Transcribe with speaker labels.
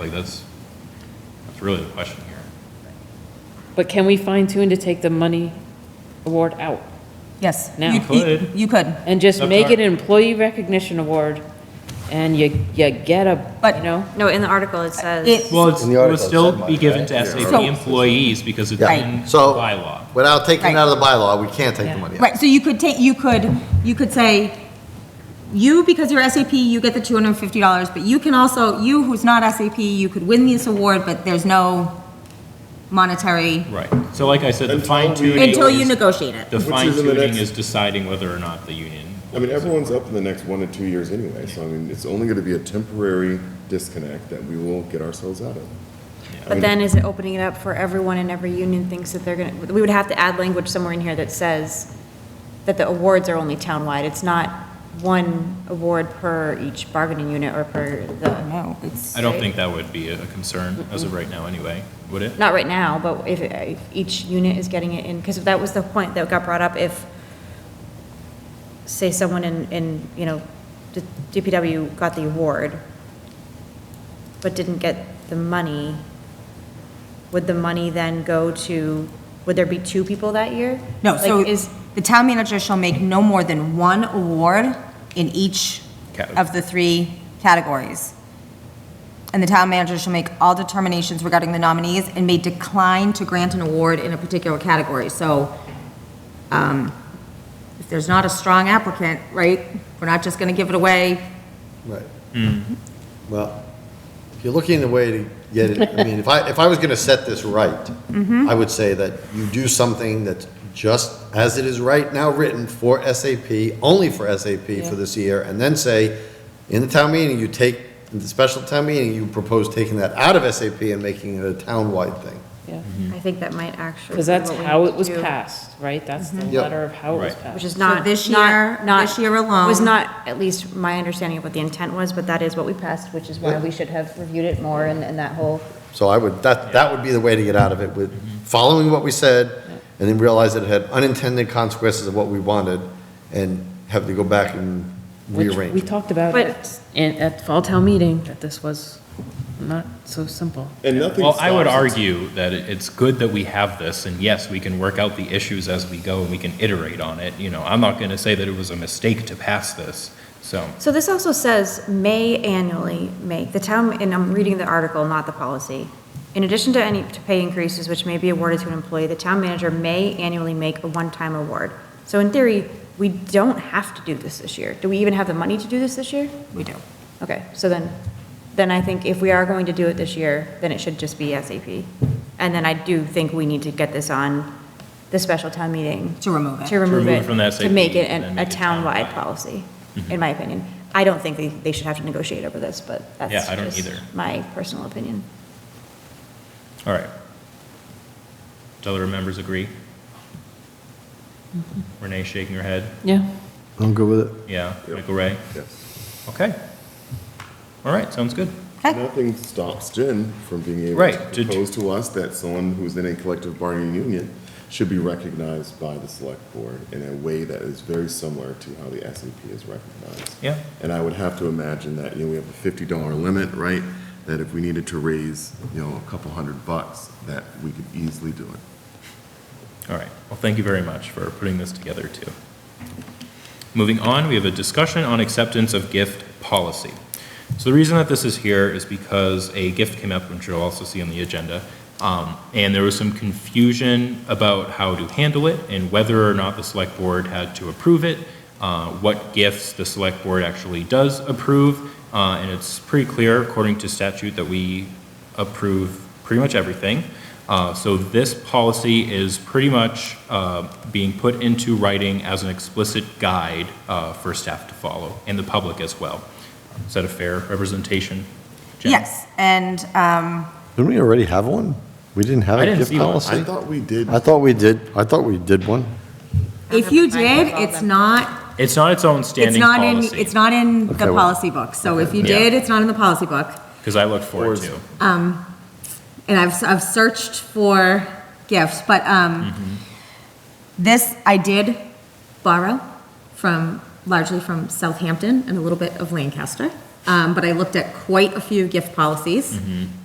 Speaker 1: Like, that's, that's really the question here.
Speaker 2: But can we fine tune to take the money award out
Speaker 3: Yes.
Speaker 2: Now.
Speaker 3: You- you-
Speaker 1: Could.
Speaker 3: You could,
Speaker 2: and just
Speaker 1: That's
Speaker 2: make
Speaker 1: our-
Speaker 2: it an employee recognition award and you, you get a,
Speaker 3: But-
Speaker 2: you know?
Speaker 4: No, in the article, it says,
Speaker 3: it,
Speaker 1: Well, it's-
Speaker 5: In the
Speaker 1: it would
Speaker 5: article, it
Speaker 1: still
Speaker 5: said
Speaker 1: be
Speaker 5: money,
Speaker 1: given
Speaker 5: right?
Speaker 1: to SAP
Speaker 3: So-
Speaker 1: employees because it's
Speaker 5: Yeah.
Speaker 1: in
Speaker 5: So-
Speaker 1: bylaw.
Speaker 5: Without taking it
Speaker 3: Right.
Speaker 5: out of the bylaw, we can't take
Speaker 2: Yeah.
Speaker 5: the money out.
Speaker 3: right, so you could take, you could, you could say, you, because you're SAP, you get the two hundred and fifty dollars, but you can also, you who's not SAP, you could win this award, but there's no monetary,
Speaker 1: Right. So like I said, the
Speaker 6: Until
Speaker 1: fine
Speaker 6: we-
Speaker 1: tuning
Speaker 3: until you
Speaker 1: is,
Speaker 3: negotiate it.
Speaker 1: the
Speaker 6: Which is
Speaker 1: fine
Speaker 6: in the
Speaker 1: tuning
Speaker 6: next-
Speaker 1: is deciding whether or not the union.
Speaker 6: I mean, everyone's up in the next one to two years anyway, so I mean, it's only gonna be a temporary disconnect that we will get ourselves out of.
Speaker 4: but then is it opening it up for everyone and every union thinks that they're going to, we would have to add language somewhere in here that says that the awards are only townwide. It's not one award per each bargaining unit or per the,
Speaker 3: No, it's,
Speaker 1: I don't think that would be a concern as of right now anyway, would it?
Speaker 4: not right now, but if, if each unit is getting it in, because that was the point that got brought up, if, say, someone in, in, you know, the DPW got the award, but didn't get the money, would the money then go to, would there be two people that year?
Speaker 3: no, so
Speaker 4: Like, is,
Speaker 3: the town manager shall make no more than one award in each
Speaker 1: Category.
Speaker 3: of the three categories. And the town manager shall make all determinations regarding the nominees and may decline to grant an award in a particular category. So um, if there's not a strong applicant, right, we're not just going to give it away.
Speaker 5: Right. Well, if you're looking at a way to get it, I mean, if I, if I was gonna set this right,
Speaker 3: Mm-hmm.
Speaker 5: I would say that you do something that's just as it is right now written for SAP, only for SAP for this year, and then say, in the town meeting, you take, in the special town meeting, you propose taking that out of SAP and making it a town-wide thing.
Speaker 1: Mhm.
Speaker 4: I think that might actually.
Speaker 2: Because
Speaker 4: be
Speaker 2: that's
Speaker 4: what we
Speaker 2: how
Speaker 4: need
Speaker 2: it
Speaker 4: to
Speaker 2: was
Speaker 4: do.
Speaker 2: passed, right? That's the
Speaker 5: Yep.
Speaker 2: letter of how it was
Speaker 1: Mhm. Right.
Speaker 2: passed.
Speaker 4: Which is
Speaker 3: So
Speaker 4: not,
Speaker 3: this year-
Speaker 4: not, not.
Speaker 3: this year alone-
Speaker 4: Was not, at least my understanding of what the intent was, but that is what we passed, which is why we should have reviewed it more and, and that whole.
Speaker 5: So I would, that, that would be the way to get out of it, with following what we said, and then realize that it had unintended consequences of what we wanted, and have to go back and
Speaker 2: Which we
Speaker 5: rearrange.
Speaker 2: talked about
Speaker 4: But-
Speaker 2: it in, at fall town meeting, that this was not so simple.
Speaker 6: And nothing
Speaker 1: Well, I would
Speaker 6: stops.
Speaker 1: argue that it- it's good that we have this, and yes, we can work out the issues as we go, and we can iterate on it, you know, I'm not gonna say that it was a mistake to pass this, so.
Speaker 4: So this also says may annually make, the town, and I'm reading the article, not the policy. In addition to any to pay increases which may be awarded to an employee, the town manager may annually make a one-time award. So in theory, we don't have to do this this year. Do we even have the money to do this this year?
Speaker 3: We do.
Speaker 4: Okay, so then, then I think if we are going to do it this year, then it should just be SAP. And then I do think we need to get this on the special town meeting.
Speaker 3: To remove it.
Speaker 4: To remove
Speaker 1: remove
Speaker 4: it.
Speaker 1: it from the
Speaker 4: To make
Speaker 1: SAP,
Speaker 4: it an-
Speaker 1: then
Speaker 4: a
Speaker 1: make it
Speaker 4: townwide
Speaker 1: townwide.
Speaker 4: policy,
Speaker 1: Mm-hmm.
Speaker 4: in my opinion. I don't think they, they should have to negotiate over this, but that's.
Speaker 1: Yeah, I don't
Speaker 4: just
Speaker 1: either.
Speaker 4: My personal opinion.
Speaker 1: All right. Do other members agree? Renee shaking her head.
Speaker 2: Yeah.
Speaker 5: I'm good with it.
Speaker 1: Yeah. Michael Ray.
Speaker 6: Yes.
Speaker 1: Okay. All right. Sounds good.
Speaker 6: Nothing stops Jen from being able
Speaker 1: Right,
Speaker 6: to
Speaker 1: to-
Speaker 6: propose to us that someone who's in a collective bargaining union should be recognized by the select board in a way that is very similar to how the SAP is recognized.
Speaker 1: Yeah.
Speaker 6: And I would have to imagine that, you know, we have a fifty dollar limit, right? That if we needed to raise, you know, a couple hundred bucks, that we could easily do it.
Speaker 1: All right. Well, thank you very much for putting this together too. Moving on, we have a discussion on acceptance of gift policy. So the reason that this is here is because a gift came up, which you'll also see on the agenda, um, and there was some confusion about how to handle it and whether or not the select board had to approve it, uh, what gifts the select board actually does approve, uh, and it's pretty clear, according to statute, that we approve pretty much everything. Uh, So this policy is pretty much uh, being put into writing as an explicit guide uh, for staff to follow, and the public as well. Is that a fair representation? Jen?
Speaker 3: Yes, and, um,
Speaker 5: Didn't we already have one? We didn't have
Speaker 1: I
Speaker 5: a
Speaker 1: didn't
Speaker 5: gift
Speaker 1: see one.
Speaker 5: policy?
Speaker 6: I thought we did.
Speaker 5: I thought we did, I thought we did one.
Speaker 3: if you did, it's not,
Speaker 1: It's not its own
Speaker 3: it's
Speaker 1: standing
Speaker 3: not in,
Speaker 1: policy,
Speaker 3: it's not in
Speaker 5: Okay,
Speaker 3: the
Speaker 5: well-
Speaker 3: policy book. So if you
Speaker 1: Yeah.
Speaker 3: did, it's not in the policy book.
Speaker 1: because I looked forward to.
Speaker 3: and I've, I've searched for gifts, but um, this I did borrow from, largely from Southampton and a little bit of Lancaster. Um, But I looked at quite a few gift policies.